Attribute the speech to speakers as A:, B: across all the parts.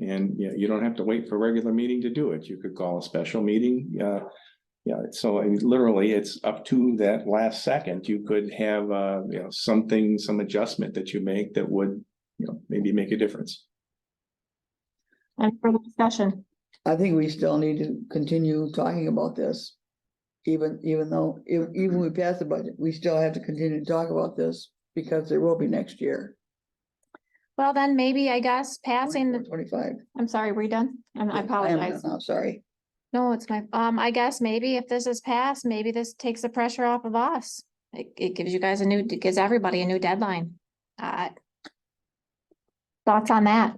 A: and you know, you don't have to wait for a regular meeting to do it. You could call a special meeting. Uh, yeah, so I mean, literally, it's up to that last second. You could have, uh, you know, something, some adjustment that you make that would, you know, maybe make a difference.
B: Any further discussion?
C: I think we still need to continue talking about this. Even, even though, even, even we pass the budget, we still have to continue to talk about this because there will be next year.
B: Well, then maybe I guess passing the,
C: Twenty-five.
B: I'm sorry, were you done? Um, I apologize.
C: I'm sorry.
B: No, it's my, um, I guess maybe if this is passed, maybe this takes the pressure off of us. It, it gives you guys a new, it gives everybody a new deadline. Uh, Thoughts on that?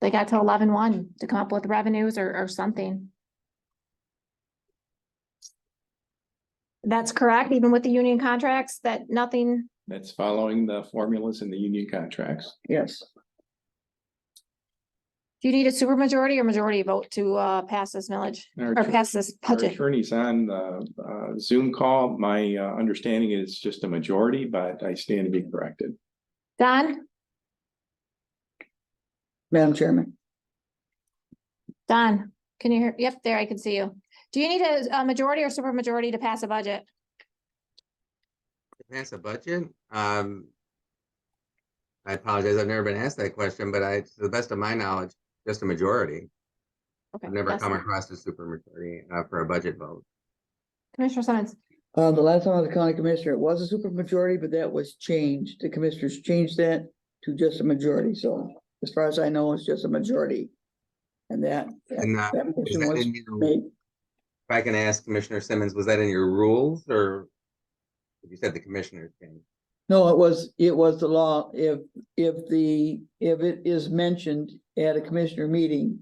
B: They got to eleven one to come up with revenues or, or something. That's correct, even with the union contracts, that nothing,
A: That's following the formulas in the union contracts.
C: Yes,
B: do you need a supermajority or majority vote to, uh, pass this millage
A: Our
B: or pass this
A: our
B: budget?
A: attorney's on the uh, Zoom call. My uh, understanding is just a majority, but I stand to be corrected.
B: Don,
C: Madam Chairman.
B: Don, can you hear? Yep, there, I can see you. Do you need a, a majority or supermajority to pass a budget?
D: to pass a budget? Um, I apologize, I've never been asked that question, but I, to the best of my knowledge, just a majority.
B: Okay,
D: I've never
B: yes.
D: come across a supermajority uh, for a budget vote.
B: Commissioner Simmons,
C: Uh, the last time I was a county commissioner, it was a supermajority, but that was changed. The commissioners changed that to just a majority, so as far as I know, it's just a majority. And that, that
D: And uh,
C: that
D: is
C: motion
D: that
C: was
D: in your- if
C: made,
D: I can ask Commissioner Simmons, was that in your rules or? You said the commissioners can.
C: no, it was, it was the law, if, if the, if it is mentioned at a commissioner meeting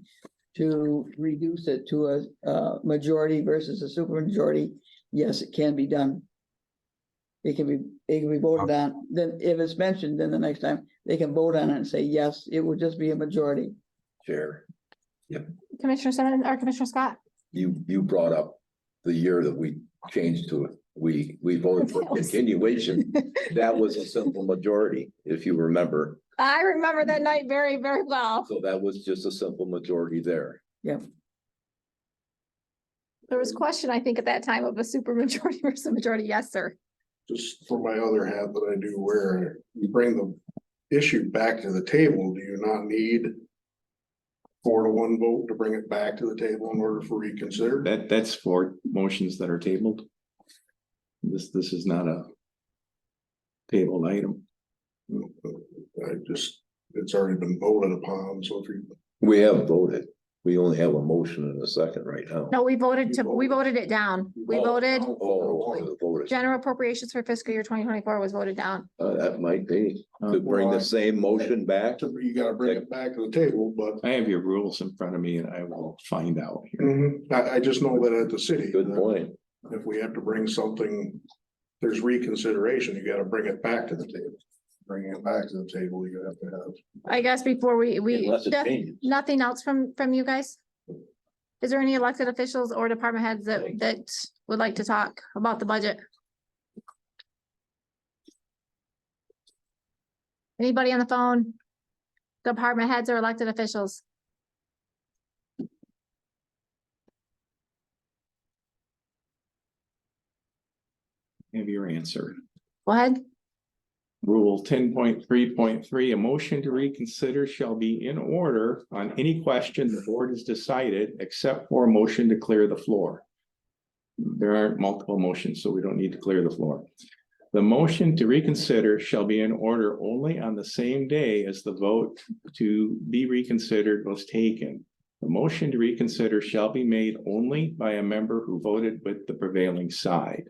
C: to reduce it to a, uh, majority versus a supermajority, yes, it can be done. It can be, it can be voted on, then if it's mentioned, then the next time, they can vote on it and say, yes, it would just be a majority.
E: Chair,
B: Commissioner Simmons, or Commissioner Scott?
E: you, you brought up the year that we changed to, it. we, we voted for
B: That was-
E: continuation. That was a simple majority, if you remember.
B: I remember that night very, very well.
E: So that was just a simple majority there.
B: There was question, I think, at that time of a supermajority versus a majority, yes, sir.
F: just for my other hat that I do wear, you bring the issue back to the table, do you not need four to one vote to bring it back to the table in order for reconsider?
A: That, that's for motions that are tabled. This, this is not a tabled item.
F: I just, it's already been voted upon, so if you
E: We have voted. We only have a motion and a second right now.
B: No, we voted to,
F: You
B: we
F: voted.
B: voted it down. We
F: Oh,
B: voted,
E: Oh, we voted.
B: general appropriations for fiscal year twenty twenty-four was voted down.
E: Uh, that might be,
A: Uh,
E: to bring
F: well, I-
E: the same motion back.
F: to- you gotta bring it back to the table, but
A: I have your rules in front of me and I will find out here.
F: mhm, I, I just know that at the city.
E: Good
F: that
E: point.
F: If we have to bring something, there's reconsideration, you gotta bring it back to the table. Bringing it back to the table, you have to have
B: I guess before we, we,
E: Unless it
B: Noth-
E: changes.
B: nothing else from, from you guys? Is there any elected officials or department heads that, that would like to talk about the budget? Anybody on the phone? Department heads or elected officials?
A: Have your answer.
B: Go ahead.
A: Rule ten point three point three, a motion to reconsider shall be in order on any question the board has decided, except for a motion to clear the floor. There aren't multiple motions, so we don't need to clear the floor. The motion to reconsider shall be in order only on the same day as the vote to be reconsidered was taken. The motion to reconsider shall be made only by a member who voted with the prevailing side.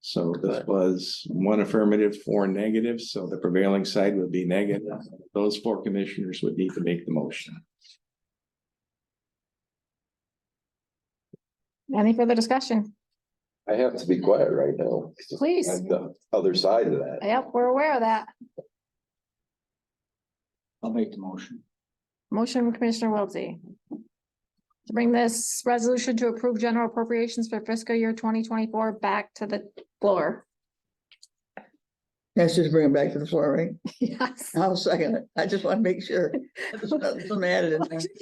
A: So this was one affirmative, four negatives, so the prevailing side would be negative. Those four commissioners would need to make the motion.
B: Any further discussion?
E: I have to be quiet right now.
B: Please.
E: I'm the other side of that.
B: Yep, we're aware of that.
G: I'll make the motion.
B: Motion from Commissioner Wiltie. To bring this resolution to approve general appropriations for fiscal year twenty twenty-four back to the floor.
C: That's just bring it back to the floor, right?
B: Yes.
C: I'll second it. I just want to make sure. Something added in there.